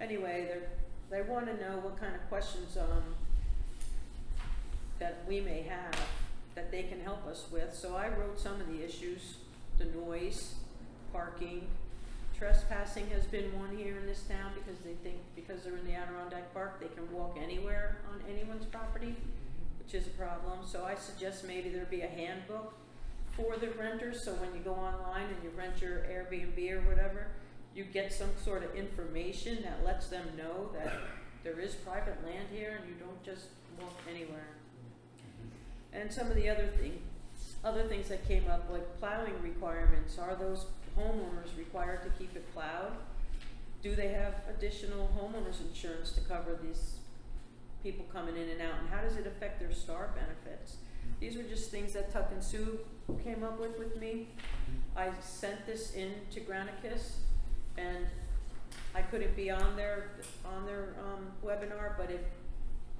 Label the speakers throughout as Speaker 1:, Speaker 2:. Speaker 1: anyway, they're, they wanna know what kind of questions, um, that we may have, that they can help us with, so I wrote some of the issues, the noise, parking, trespassing has been one here in this town, because they think, because they're in the Adirondack Park, they can walk anywhere on anyone's property, which is a problem, so I suggest maybe there be a handbook for the renters, so when you go online and you rent your Airbnb or whatever, you get some sort of information that lets them know that there is private land here and you don't just walk anywhere. And some of the other thing, other things that came up, like plowing requirements, are those homeowners required to keep it plowed? Do they have additional homeowners insurance to cover these people coming in and out, and how does it affect their star benefits? These were just things that Tuck and Sue came up with with me. I sent this in to Granicus and I couldn't be on their, on their, um, webinar, but if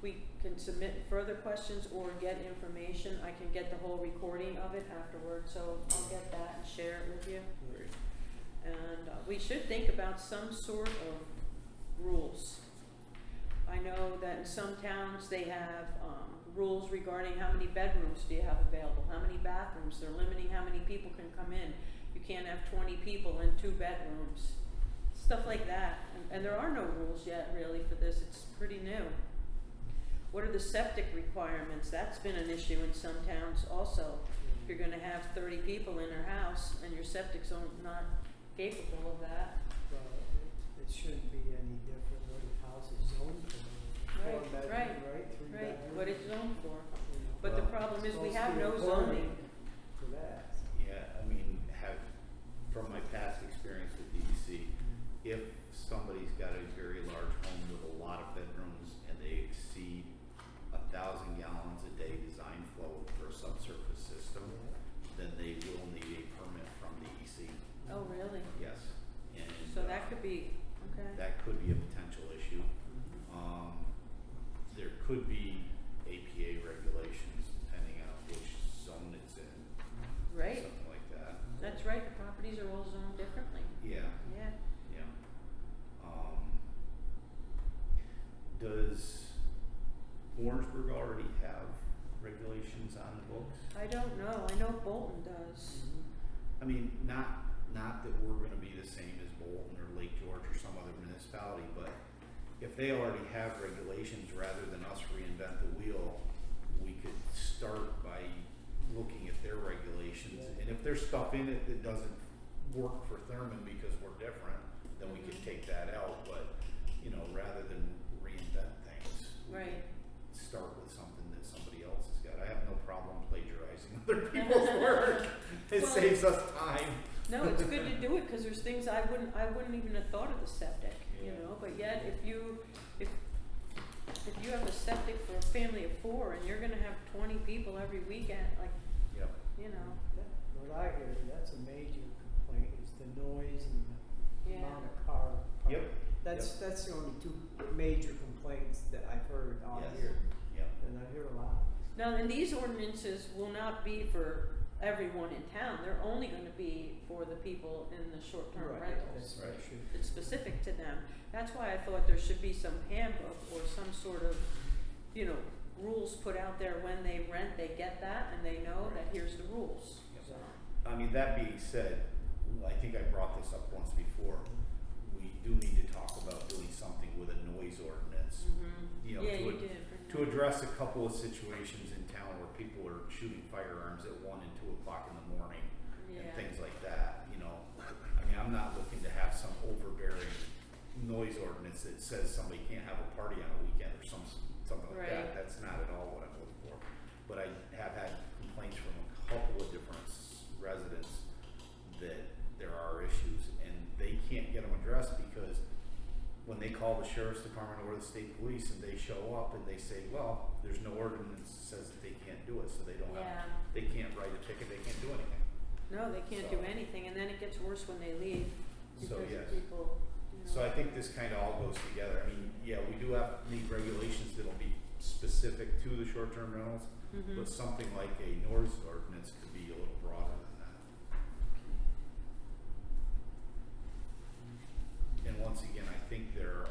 Speaker 1: we can submit further questions or get information, I can get the whole recording of it afterward, so I'll get that and share it with you.
Speaker 2: Great.
Speaker 1: And uh, we should think about some sort of rules. I know that in some towns, they have um, rules regarding how many bedrooms do you have available, how many bathrooms, they're limiting how many people can come in. You can't have twenty people in two bedrooms, stuff like that. And- And there are no rules yet really for this, it's pretty new. What are the septic requirements? That's been an issue in some towns also. If you're gonna have thirty people in their house and your septic's on- not capable of that,
Speaker 2: Well, it- it shouldn't be any different what a house is zoned for. Four
Speaker 1: Right,
Speaker 2: bedroom,
Speaker 1: right,
Speaker 2: right? Three
Speaker 1: right,
Speaker 2: bedroom,
Speaker 1: what it's
Speaker 2: you know.
Speaker 1: zoned for. But the
Speaker 3: Well,
Speaker 1: problem is we
Speaker 2: Supposed to
Speaker 1: have
Speaker 2: be
Speaker 1: no
Speaker 2: according
Speaker 1: zoning.
Speaker 2: To that.
Speaker 3: Yeah, I mean, have, from my past experience with DEC, if somebody's got a very large home with a lot of bedrooms and they exceed a thousand gallons a day design flow for a subsurface system, then they will need a permit from DEC,
Speaker 1: Oh, really?
Speaker 3: yes. And
Speaker 1: So
Speaker 3: uh,
Speaker 1: that could be, okay,
Speaker 3: that could be a potential issue. Um, there could be APA regulations depending on which zone it's in,
Speaker 1: right?
Speaker 3: something like that.
Speaker 2: Mm-hmm.
Speaker 1: That's right, the properties are all zoned differently,
Speaker 3: Yeah.
Speaker 1: yeah.
Speaker 3: Yeah. Um, does Orangeburg already have regulations on the books?
Speaker 1: I don't know, I know Bolton does.
Speaker 3: I mean, not, not that we're gonna be the same as Bolton or Lake George or some other municipality, but if they already have regulations, rather than us reinvent the wheel, we could start by looking at their regulations.
Speaker 2: Yeah.
Speaker 3: And if there's stuff in it that doesn't work for Thurman because we're different, then we could
Speaker 1: Mhm.
Speaker 3: take that out, but, you know, rather than reinvent things. we could
Speaker 1: Right.
Speaker 3: Start with something that somebody else has got. I have no problem plagiarizing other people's work. It
Speaker 1: Well-
Speaker 3: saves us time.
Speaker 1: No, it's good to do it, cause there's things I wouldn't, I wouldn't even have thought of the septic, you
Speaker 3: Yeah.
Speaker 1: know, but yet if you, if, if you have a septic for a family of four and you're gonna have twenty people every weekend, like,
Speaker 3: Yep.
Speaker 1: you know,
Speaker 2: That- What I hear, that's a major complaint is the noise and the
Speaker 1: yeah.
Speaker 2: amount of car. park.
Speaker 3: Yep,
Speaker 2: That's, that's the only two major complaints that I've heard all
Speaker 3: Yes.
Speaker 2: year,
Speaker 3: yep.
Speaker 2: and I hear a lot.
Speaker 1: Now, and these ordinances will not be for everyone in town, they're only gonna be for the people in the short-term
Speaker 2: Right,
Speaker 1: rentals.
Speaker 2: that's what
Speaker 3: Right.
Speaker 2: should-
Speaker 1: It's specific to them. That's why I thought there should be some handbook or some sort of, you know, rules put out there when they rent, they get that and they know that here's the rules.
Speaker 3: Yep.
Speaker 2: So,
Speaker 3: I mean, that being said, I think I brought this up once before. We do need to talk about doing something with a noise ordinance You know,
Speaker 1: Yeah,
Speaker 3: to
Speaker 1: you
Speaker 3: ad-
Speaker 1: did.
Speaker 3: to address a couple of situations in town where people are shooting firearms at one and two o'clock in the morning and
Speaker 1: Yeah,
Speaker 3: things like that, you know. I mean, I'm not looking to have some overbearing noise ordinance that says somebody can't have a party on a weekend or some, something like
Speaker 1: Right.
Speaker 3: that. That's not at all what I'm looking for. But I have had complaints from a couple of different s- residents that there are issues and they can't get them addressed because when they call the sheriff's department or the state police and they show up and they say, well, there's no ordinance that says that they can't do it, so they don't
Speaker 1: yeah.
Speaker 3: have, they can't write a ticket, they can't do anything.
Speaker 1: No, they can't do
Speaker 3: So-
Speaker 1: anything and then it gets worse when they leave
Speaker 3: So,
Speaker 1: because
Speaker 3: yes.
Speaker 1: of people, you know.
Speaker 3: So I think this kind of all goes together. I mean, yeah, we do have, need regulations that'll be specific to the short-term rentals,
Speaker 1: Mhm.
Speaker 3: but something like a noise ordinance could be a little broader than that.
Speaker 1: Hmm.
Speaker 3: And once again, I think